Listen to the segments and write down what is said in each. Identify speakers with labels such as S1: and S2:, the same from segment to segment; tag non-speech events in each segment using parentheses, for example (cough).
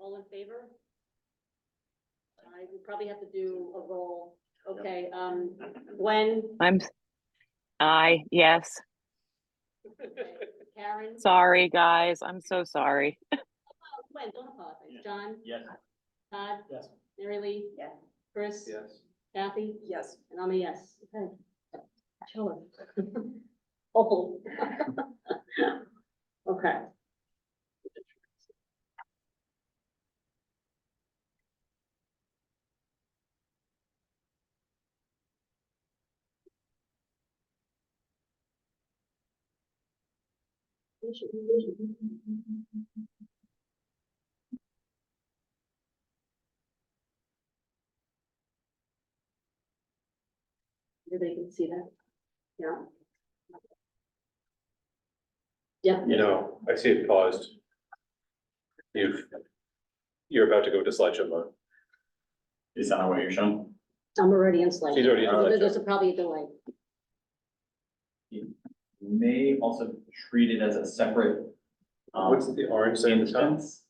S1: all in favor? I would probably have to do a roll, okay, um,
S2: (laughs)
S1: Gwen,
S3: I'm, s- I, yes,
S1: okay, Karen?
S3: sorry, guys, I'm so sorry.
S1: Oh, Gwen, don't apologize,
S2: Yeah.
S1: John,
S2: Yes.
S1: Todd,
S2: Yes.
S1: Mary Lee?
S4: Yeah.
S1: Chris?
S2: Yes.
S1: Kathy?
S4: Yes.
S1: And I'm a yes. Okay. Chiller. (laughs) Oh. (laughs) Okay. Everybody can see that? Yeah. Yeah.
S5: You know, I see it paused. You've, you're about to go to slideshow mode.
S2: Is that not what you're showing?
S1: I'm already in slide.
S5: She's already in
S1: So There's
S5: slideshow.
S1: a- probably a delay.
S2: May also treat it as a separate. um,
S5: What's the orange thing at the top?
S2: instance.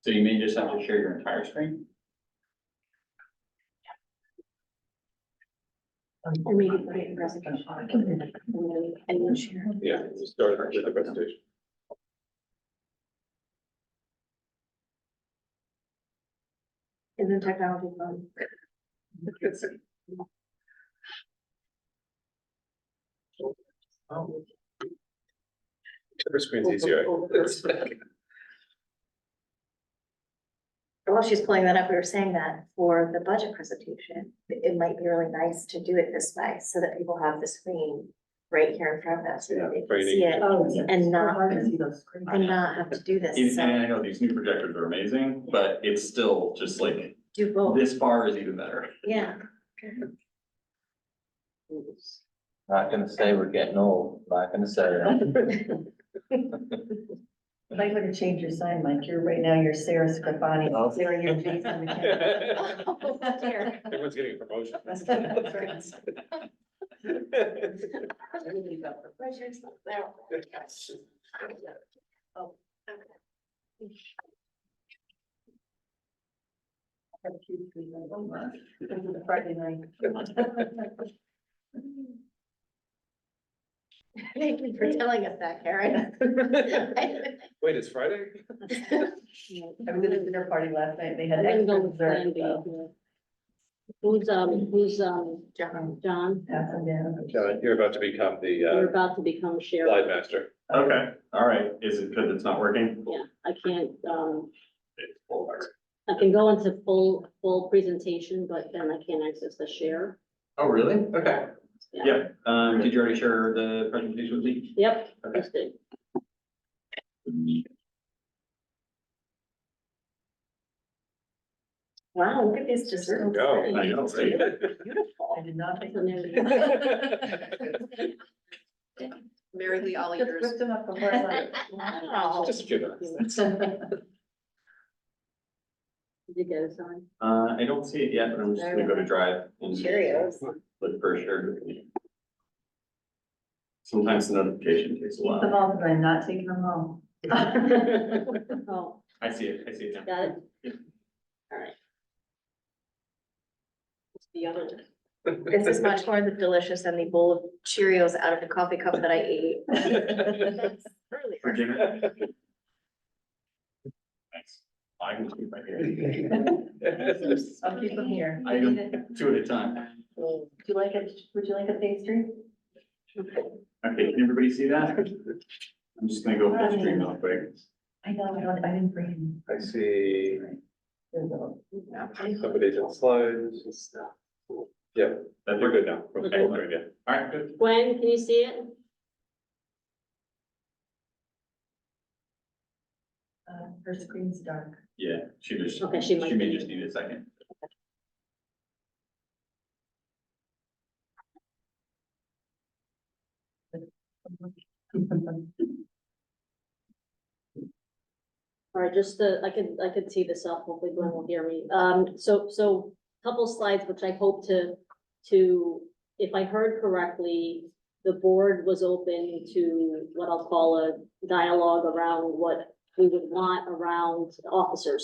S2: So you may just have to share your entire screen.
S5: Yeah, you started with the presentation.
S4: Isn't technology fun?
S5: Every screen's
S6: (laughs)
S5: easier.
S4: While she's pulling that up, we were saying that for the budget presentation, it might be really nice to do it this way so that people have the screen right here in front of them, so
S5: Yeah,
S4: that they can
S5: training.
S4: see it
S6: Oh,
S2: yeah.
S4: and not,
S2: I know.
S4: and not have to do this.
S2: Even-
S4: So
S2: And I know these new projectors are amazing, but it's still just like,
S4: do
S1: Oh.
S4: both,
S2: this bar is even better.
S4: yeah.
S7: Not gonna say we're getting old, not gonna say that.
S6: Might want to change your sign, Mike. You're, right now, you're Sarah Scrivani,
S7: Oh.
S6: Sarah, your face on the (laughs) camera.
S4: dear.
S5: Everyone's getting a promotion.
S6: Friday night.
S4: Thank you for telling us that, Karen.
S5: (laughs) Wait, it's Friday?
S6: I was at a dinner party last night. They had
S1: I'm gonna go
S6: extra
S1: with plan
S6: dessert.
S1: B
S6: so
S1: here. Who's, um, who's, um,
S4: (laughs) John.
S1: John?
S6: Pass them down.
S5: John, Uh, you're about to become
S1: You're
S5: the
S1: about to become
S5: uh,
S1: sheriff.
S5: slide master.
S2: Okay, all right. Is it because it's not working?
S1: Yeah, I can't, um,
S2: It's full bar.
S1: I can go into full, full presentation, but then I can't access the share.
S2: Oh, really? Okay.
S1: Yeah.
S2: Yeah, um, did you already share the presentation with me?
S1: Yep,
S2: Okay.
S1: that's good.
S4: Oh,
S6: Wow, look at these desserts.
S5: Go.
S2: I know, right?
S6: I did not think. (laughs)
S4: Mary Lee, all
S6: Just whipped them up before I
S4: Wow.
S5: (laughs) Just a few minutes.
S6: left.
S1: Did you get us on?
S2: Uh, I don't see it yet, but I'm just gonna go to drive and
S4: (laughs) Cheerios.
S2: look for sure. Sometimes the notification takes a
S6: Eat them
S2: while.
S6: all, but I'm not taking them (laughs) home.
S1: Oh,
S2: I see it, I see it now.
S1: got it?
S2: Yeah.
S1: All right. What's the other? one?
S4: This is much more delicious than the bowl of Cheerios out of the coffee cup that I ate.
S5: (laughs)
S2: (laughs) For dinner. Thanks. I can keep my hand.
S6: I'll keep them here.
S2: I go two at a time.
S6: Would you like a, would you like a pastry?
S2: Okay, can everybody see that? I'm just gonna go full screen real quick.
S6: I know, I don't, I didn't bring.
S5: (laughs) I see
S6: There's a-
S5: somebody's in slides. Yeah,
S2: That
S5: we're
S2: looked
S5: good now. We're
S2: Okay.
S5: good, yeah.
S2: All right, good.
S1: Gwen, can you see it?
S6: Uh, her screen's dark. (laughs)
S2: Yeah, she just,
S1: Okay, she
S2: she
S1: might
S2: may
S1: be-
S2: just need a second.
S1: All right, just the, I could, I could tee this up, hopefully Glenn will hear me. Um, so, so couple slides, which I hope to, to, if I heard correctly, the board was open to what I'll call a dialogue around what we would want around officers.